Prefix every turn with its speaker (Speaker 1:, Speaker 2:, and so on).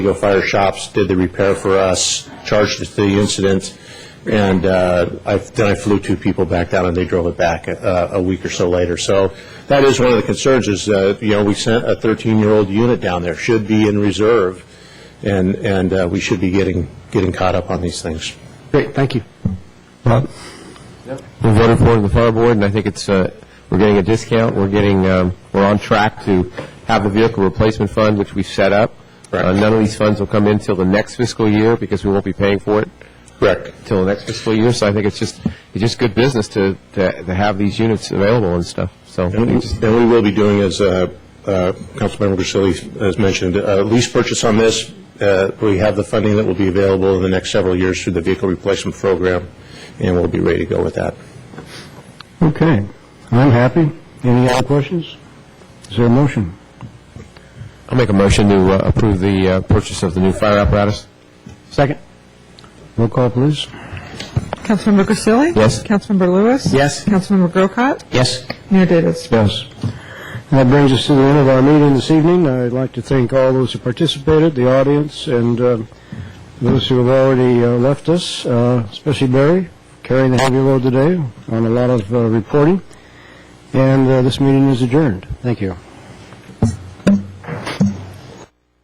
Speaker 1: Eagle Fire Shops did the repair for us, charged us the incident, and uh, I- then I flew two people back down, and they drove it back uh, a week or so later. So that is one of the concerns, is, uh, you know, we sent a 13-year-old unit down there, should be in reserve, and, and uh, we should be getting, getting caught up on these things.
Speaker 2: Great, thank you.
Speaker 3: Bob? We voted for it in the fire board, and I think it's, uh, we're getting a discount, we're getting, um, we're on track to have the vehicle replacement fund, which we set up.
Speaker 1: Correct.
Speaker 3: Uh, None of these funds will come in till the next fiscal year, because we won't be paying for it
Speaker 1: Correct.
Speaker 3: till the next fiscal year, so I think it's just, it's just good business to, to to have these units available and stuff, so.
Speaker 1: And we and we will be doing, as uh, uh, Councilmember Grisilli has mentioned, a lease purchase on this. Uh, We have the funding that will be available in the next several years through the vehicle replacement program, and we'll be ready to go with that.
Speaker 2: Okay, I'm happy. Any other questions? Is there a motion?
Speaker 3: I'll make a motion to uh, approve the uh, purchase of the new fire apparatus.
Speaker 2: Second. Roll call, please.
Speaker 4: Councilmember Grisilli?
Speaker 3: Yes.
Speaker 4: Councilmember Lewis?
Speaker 2: Yes.
Speaker 4: Councilmember Grocott?
Speaker 3: Yes.
Speaker 4: Mayor Davis?
Speaker 2: Yes. That brings us to the end of our meeting this evening. I'd like to thank all those who participated, the audience, and uh, those who have already uh, left us, uh, especially Barry, carrying the heavy load today on a lot of uh, reporting. And uh, this meeting is adjourned. Thank you.